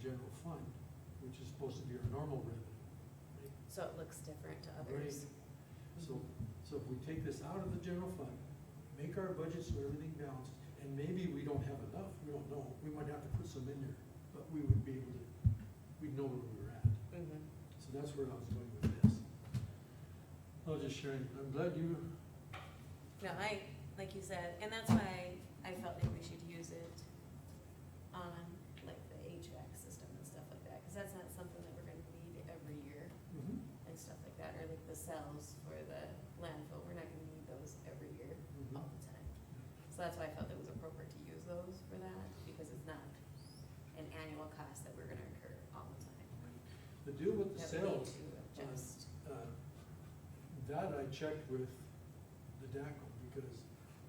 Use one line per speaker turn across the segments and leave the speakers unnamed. general fund, which is supposed to be our normal revenue. right?
So it looks different to others.
So, so if we take this out of the general fund, make our budget so everything balances, and maybe we don't have enough, we don't know, we might have to put some in there, but we would be able to, we'd know where we were at.
Mhm.
So that's where I was going with this. I was just sharing, I'm glad you,
No, I, like you said, and that's why I felt like we should use it on like the HVAC system and stuff like that, cause that's not something that we're gonna need every year
Mhm,
and stuff like that, or like the cells for the landfill, we're not gonna need those every year
mhm.
all the time. So that's why I felt it was appropriate to use those for that, because it's not an annual cost that we're gonna incur all the time.
the deal with the
That we need
sales,
to adjust.
uh, that I checked with the DACO, because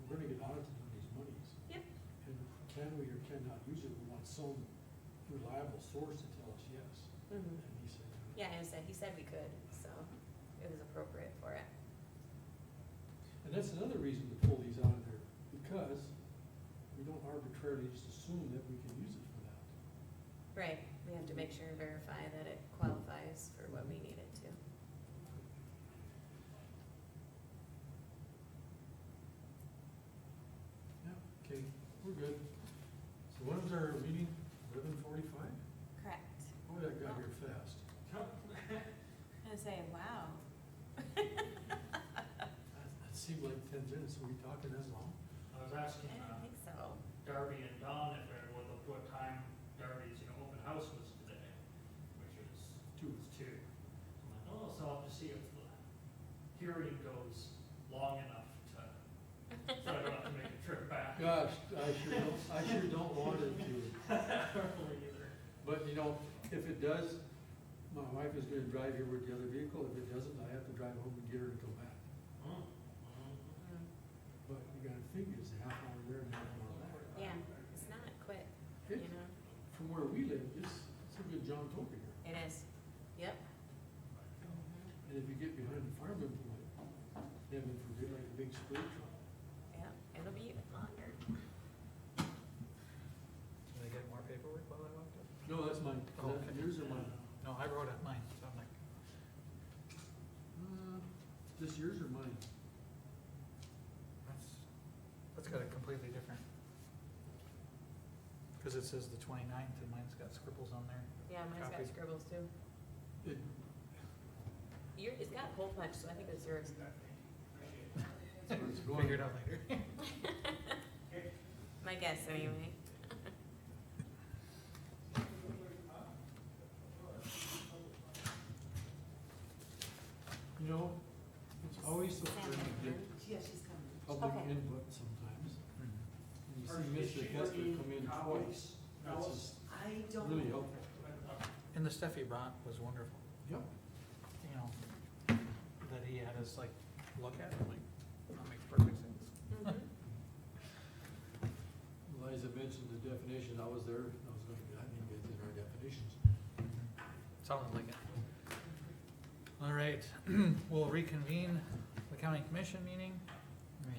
we're gonna get audited on these monies.
Yep.
And can we or cannot use it, we want some reliable source to tell us yes.
Mhm.
And he said,
Yeah, I understand, he said we could, so it was appropriate for it.
and that's another reason to pull these out of there, because we don't arbitrarily just assume that we can use it for that.
Right, we have to make sure and verify that it qualifies for what we need it to.
Yeah, okay, we're good. So when was our meeting? Eleven forty-five?
Correct.
Boy, that got here fast.
I'm gonna say, wow.
That that seemed like ten minutes. Were we talking as long?
I was
I
asking
don't
uh,
think so.
Darby and Don if it, what, what time Darby's, you know, open house was today, which is,
Two.
was two. I'm like, oh, so I'll just see if the hearing goes long enough to, so I don't have to make a trip back.
Gosh, I sure don't, I sure don't want it to.
Really either.
But you know, if it does, my wife is gonna drive here with the other vehicle. If it doesn't, I have to drive home and get her to go back.
Mm, mm.
Mm,
But you gotta think it's a half hour there and a half
oh,
hour back.
Yeah, it's not quick, you
It,
know,
from where we live, it's, it's a good jaunt over here.
it is, yep. Mm-hmm.
And if you get behind the farm implement, then if we get like a big spray truck.
Yep, it'll be even longer.
Did I get more paperwork while I walked up?
No, that's mine.
Oh,
Is that
okay.
Yours or mine?
No, I wrote it mine, so I'm like,
Uh, This yours or mine?
that's, that's got a completely different. Cause it says the twenty-ninth and mine's got scribbles on there.
Yeah, mine's got
Copy.
scribbles too.
It,
Your, it's got hole punch, so I think it's yours.
it's going.
Figure it out later.
My guess, anyway.
You know, it's always so hard to get
Yeah, she's coming.
public
Okay.
input sometimes. And
Mhm.
you
Or is
see
she
Mr. Kester
working
come in
copies?
twice.
No.
That's just
I don't.
really helpful.
And the stuff he brought was wonderful,
Yep.
you know, that he had us like look at, I'm like, that makes perfect sense.
Mm-hmm.
Liza mentioned the definition. I was there. I was going, I didn't get in our definitions.
Sounded like it. All right, we'll reconvene the county commission meeting,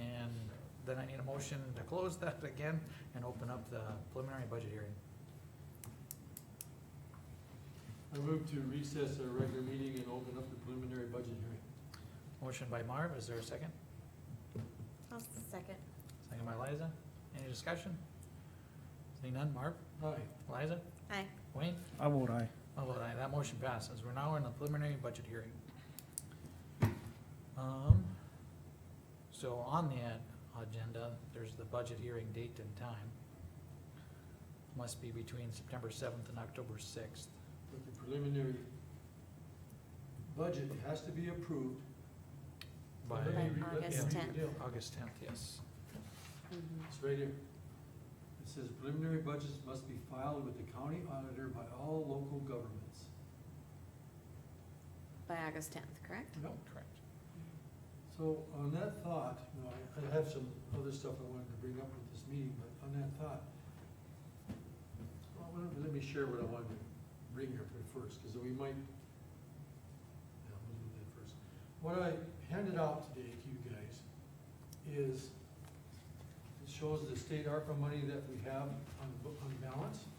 and then I need a motion to close that again and open up the preliminary budget hearing.
I move to recess our regular meeting and open up the preliminary budget hearing.
Motion by Marv, is there a second?
I'll second.
Second by Liza, any discussion? Seeing none, Marv,
Hi.
Liza,
Hi.
Wayne?
I vote aye.
I'll vote aye, that motion passes, we're now in the preliminary budget hearing. Um, so on the ad- agenda, there's the budget hearing date and time. Must be between September seventh and October sixth.
But the preliminary budget has to be approved.
By
Let me read-
By
let me
August
read the
10th.
deal.
August tenth, yes.
Mm-hmm.
It's right here. It says preliminary budgets must be filed with the county auditor by all local governments.
By August tenth, correct?
Yep.
Correct.
So on that thought, you know, I, I have some other stuff I wanted to bring up with this meeting, but on that thought, well, why don't- let me share what I wanted to bring here for first, because we might, no, we'll do that first. What I handed out today to you guys is, it shows the state ARPA money that we have on, bu- on balance.